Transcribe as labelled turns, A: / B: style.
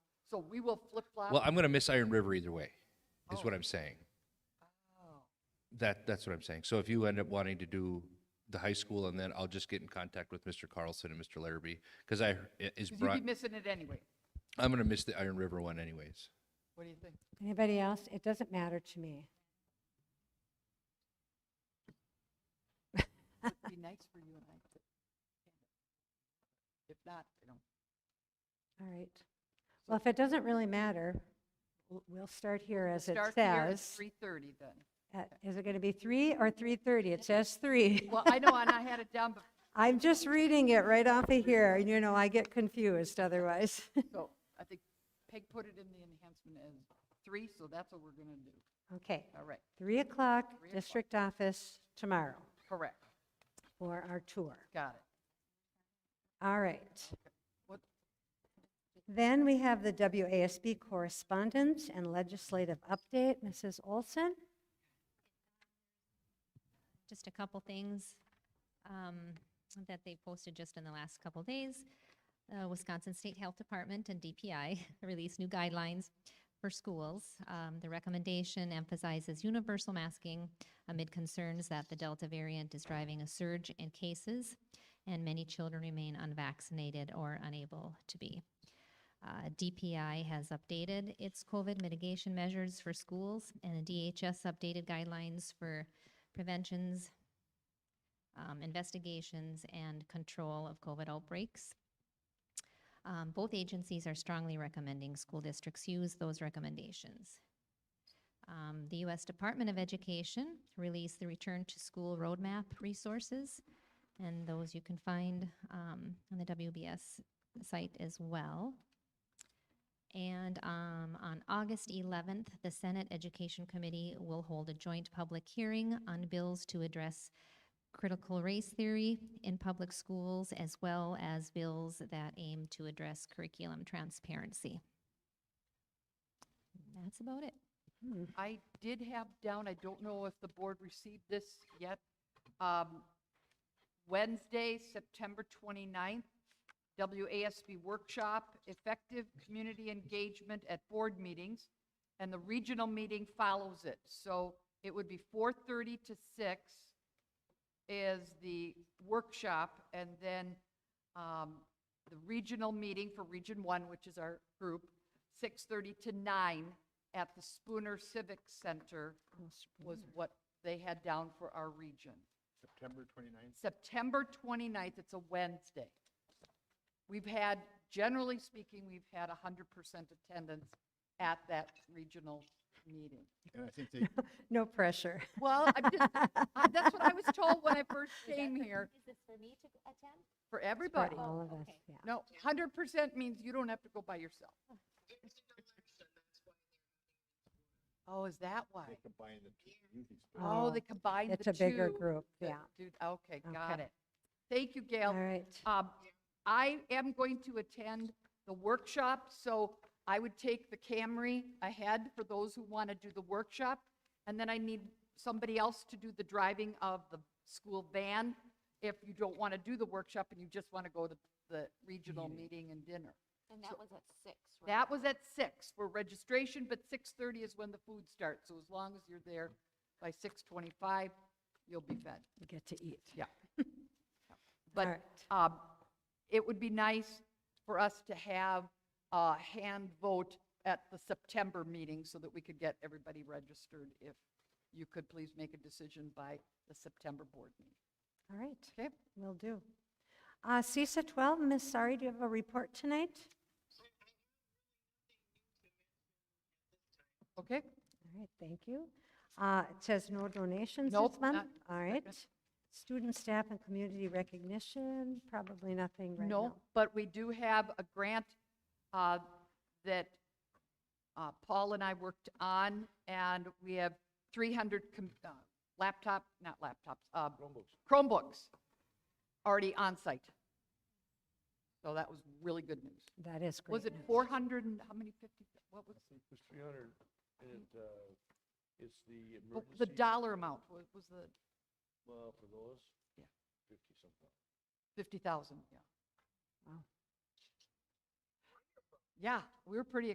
A: So we will flip flop.
B: Well, I'm going to miss Iron River either way, is what I'm saying.
A: Oh.
B: That, that's what I'm saying. So if you end up wanting to do the high school and then I'll just get in contact with Mr. Carlson and Mr. Larrabee because I, it is
A: Because
B: brought,
A: you'd be missing it anyway.
B: I'm going to miss the Iron River one anyways.
A: What do you think?
C: Anybody else? It doesn't matter to me.
A: It'd be nice for you and I to. If not, you know,
C: All right. Well, if it doesn't really matter, w- we'll start here as it
A: start here at
C: says.
A: three thirty then.
C: At- Is it going to be 3 or 3:30? It says 3.
A: Well, I know, and I had it down, but,
C: I'm just reading it right off of here, and you know, I get confused otherwise.
A: so I think Peg put it in the enhancement as three, so that's what we're gonna do.
C: Okay,
A: All right,
C: 3 o'clock,
A: Three o'clock.
C: district office tomorrow
A: correct,
C: for our tour.
A: got it.
C: All right.
A: What,
C: Then we have the WASB correspondence and legislative update. Mrs. Olson?
D: just a couple things um, that they posted just in the last couple days. Uh, Wisconsin State Health Department and DPI released new guidelines for schools. Um, the recommendation emphasizes universal masking amid concerns that the Delta variant is driving a surge in cases, and many children remain unvaccinated or unable to be. Uh, DPI has updated its COVID mitigation measures for schools, and the DHS updated guidelines for preventions, um, investigations, and control of COVID outbreaks. Um, both agencies are strongly recommending school districts use those recommendations. Um, the U.S. Department of Education released the Return to School Roadmap resources, and those you can find um, on the WBS site as well. And um, on August 11th, the Senate Education Committee will hold a joint public hearing on bills to address critical race theory in public schools, as well as bills that aim to address curriculum transparency. That's about it.
C: Hmm,
A: I did have down, I don't know if the board received this yet. um, Wednesday, September 29th, WASB workshop, effective community engagement at board meetings, and the regional meeting follows it. So it would be 4:30 to 6 is the workshop, and then um, the regional meeting for Region 1, which is our group, 6:30 to 9 at the Spooner Civic Center was what they had down for our region. September 29th, it's a Wednesday. We've had, generally speaking, we've had 100% attendance at that regional meeting.
E: And I think they,
C: No pressure.
A: Well, I'm just, I- that's what I was told when I first came here,
D: Is this for me to attend?
A: for everybody.
C: For all of us,
D: okay.
C: yeah.
A: No, 100% means you don't have to go by yourself. Oh, is that why?
E: they combine the two, usually split.
A: Oh,
C: Oh,
A: they combined the two.
C: It's a bigger group,
A: The-
C: yeah.
A: Dude, okay, got
C: Okay.
A: it. Thank you, Gail.
C: All right.
A: Um, I am going to attend the workshop, so I would take the Camry ahead for those who want to do the workshop. And then I need somebody else to do the driving of the school van if you don't want to do the workshop and you just want to go to the regional meeting and dinner.
F: And that was at six, right?
A: That was at six for registration, but 6:30 is when the food starts. So as long as you're there by 6:25, you'll be fed.
C: We Get to eat.
A: Yeah. But
C: right.
A: um, it would be nice for us to have a hand vote at the September meeting so that we could get everybody registered. If you could please make a decision by the September board meeting.
C: All right.
A: Okay?
C: Will do. Uh, CISA 12, Ms. Sari, do you have a report tonight?
A: Okay?
C: All right, thank you. Uh, It says no donations
A: Nope,
C: this month?
A: not-
C: All right. Student, staff, and community recognition, probably nothing right now.
A: No, but we do have a grant uh, that uh, Paul and I worked on, and we have 300 com- uh, laptop, not laptops, uh, Chromebooks already on site. So that was really good news.
C: That is great.
A: Was it 400 and how many 50, what was,
G: think it was three hundred, and it, uh, it's the
A: oh, the
G: emergency,
A: dollar amount wa- was the
G: well, for those?
A: Yeah.
G: Fifty something.
A: 50,000, yeah.
C: Wow.
A: Yeah, we were pretty